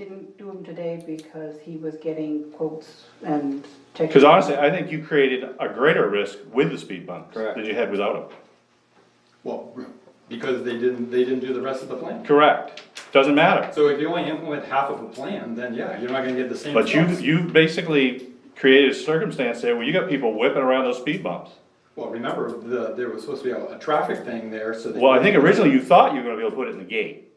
Didn't do them today because he was getting quotes and checking. Cause honestly, I think you created a greater risk with the speed bumps Correct. than you had without them. Well, because they didn't, they didn't do the rest of the plan. Correct, doesn't matter, So if you only implement half of a plan, then yeah, you're not gonna get the same. but you, results. you basically created a circumstance there where you got people whipping around those speed bumps. Well, remember, the, there was supposed to be a, a traffic thing there, so. they- Well, I think originally you thought you were gonna be able to put it in the gate,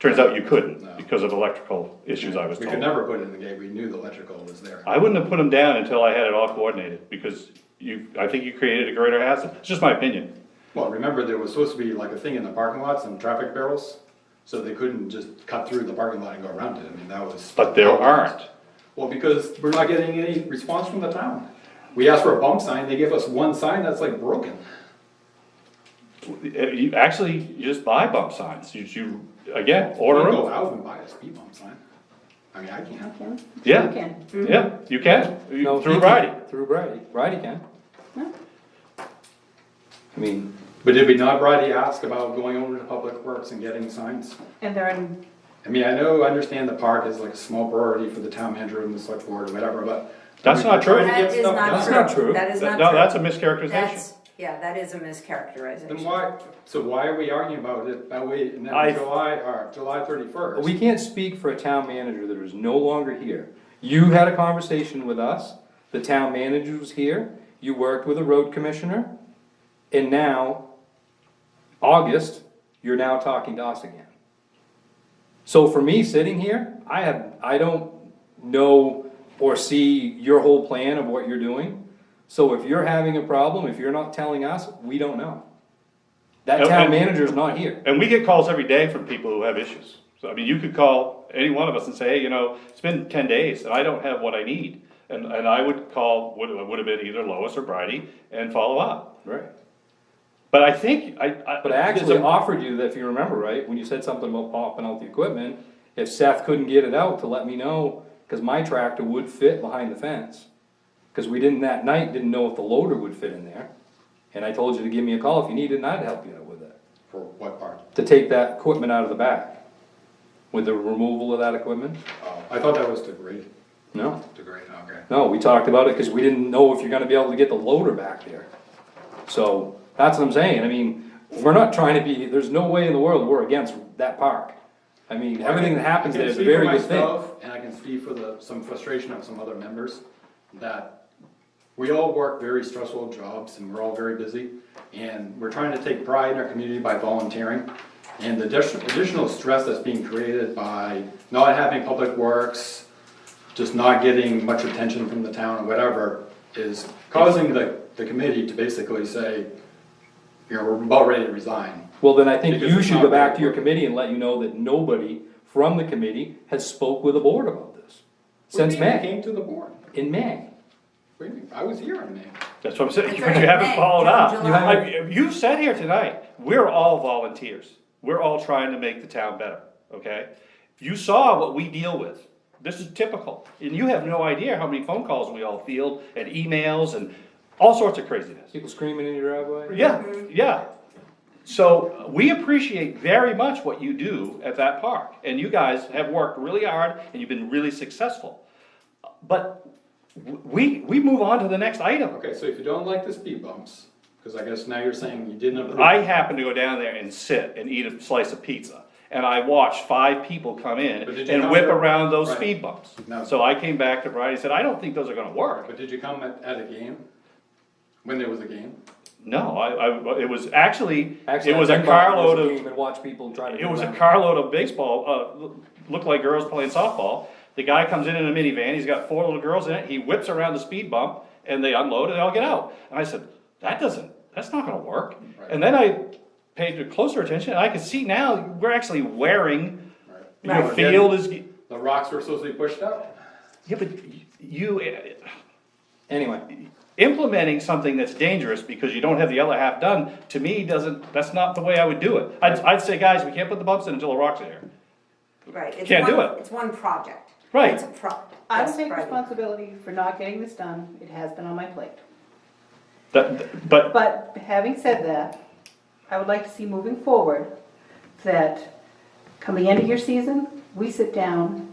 turns out you couldn't No. because of electrical issues I was We could told. never put it in the gate, we knew the electrical was there. I wouldn't have put them down until I had it all coordinated, because you, I think you created a greater hazard, it's just my opinion. Well, remember, there was supposed to be like a thing in the parking lot, some traffic barrels, so they couldn't just cut through the parking lot and go around it, I mean, that was. But there aren't. Well, because we're not getting any response from the town. We asked for a bump sign, they give us one sign that's like broken. Uh, You, actually, you just buy bump signs, you, you, again, order Go them, out and buy a speed bump sign. I mean, I can't. Can? Yeah. You can. Mhm. yeah, you can, No, you- through he Friday. can- Through Brady, Brady can. No. I mean, But did we not, Brady, ask about going over to Public Works and getting signs? And they're in, I mean, I know, I understand the park is like a small priority for the town manager and the select board or whatever, but. That's not true. We're trying to That get is stuff done. That's not true. not true. That is not That- true. No, that's a mischaracterization. That's- Yeah, that is a Then mischaracterization. why, so why are we arguing about it uh, that way now, I- July, or July thirty-first? we can't speak for a town manager that is no longer here. You had a conversation with us, the town manager was here, you worked with a road commissioner, and now, August, you're now talking to us again. So for me, sitting here, I have, I don't know or see your whole plan of what you're doing. So if you're having a problem, if you're not telling us, we don't know. That And- town and- manager's not here. And we get calls every day from people who have issues. So, I mean, you could call any one of us and say, hey, you know, it's been ten days and I don't have what I need. And, and I would call, would, would have been either Lois or Bridie and follow up. Right. But I think, I, I. But I actually offered you that, if you remember right, when you said something about popping out the equipment, if Seth couldn't get it out to let me know, cause my tractor would fit behind the fence. Cause we didn't, that night, didn't know if the loader would fit in there, and I told you to give me a call if you needed, and I'd help you out with it, For what part? to take that equipment out of the back. With the removal of that equipment? Oh, I thought that was to grade, No, to grade, okay. no, we talked about it, cause we didn't know if you're gonna be able to get the loader back there. So, that's what I'm saying, I mean, we're not trying to be, there's no way in the world we're against that park. I mean, everything that happens I there can is a speak for very good thing. myself, And I can speak for the, some frustration of some other members, that we all work very stressful jobs and we're all very busy. And we're trying to take pride in our community by volunteering. And the addition- additional stress that's being created by not having public works, just not getting much attention from the town or whatever, is causing the, the committee to basically say, you know, we're about ready to resign. Well, then I think Because you it's should not go back to your working. committee and let you know that nobody from the committee has spoke with the board about this. What do Since you mean? It May, Came to the board. in May. What do you mean? I was here in May. That's what I'm saying, It's but you already haven't May, followed June, up. July. You haven't- You've sat here tonight, we're all volunteers, we're all trying to make the town better, okay? You saw what we deal with, this is typical, and you have no idea how many phone calls we all field, and emails, and all sorts of craziness. People screaming in your driveway. Yeah, yeah. So we appreciate very much what you do at that park, and you guys have worked really hard and you've been really successful. But w- we, we move on to the next item. Okay, so if you don't like the speed bumps, because I guess now you're saying you didn't approve. I happened to go down there and sit and eat a slice of pizza, and I watched five people come in But did you and come whip there- around those Right. speed bumps. No. So I came back to Brian and said, I don't think those are gonna work. But did you come at, at a game? When there was a game? No, I, I, it was actually, Actually, it was I a think about carload this of. game And watch people try to. It do was a that. carload of baseball, uh, loo- looked like girls playing softball. The guy comes in in a minivan, he's got four little girls in it, he whips around the speed bump, and they unload and they all get out. And I said, that doesn't, that's not gonna work. And then I paid closer attention, and I could see now, we're actually wearing, Right. your Right. field is, ge- The rocks were supposed to be pushed out? yeah, but y- you, eh, Anyway, implementing something that's dangerous because you don't have the other half done, to me, doesn't, that's not the way I would do it. I'd, I'd say, guys, we can't put the bumps in until the rocks are here. Right. it's Can't do one- it. It's one project. Right. It's a project. I will take responsibility for not getting this done, it has been on my plate. That, but But having said that, I would like to see moving forward, that coming into your season, we sit down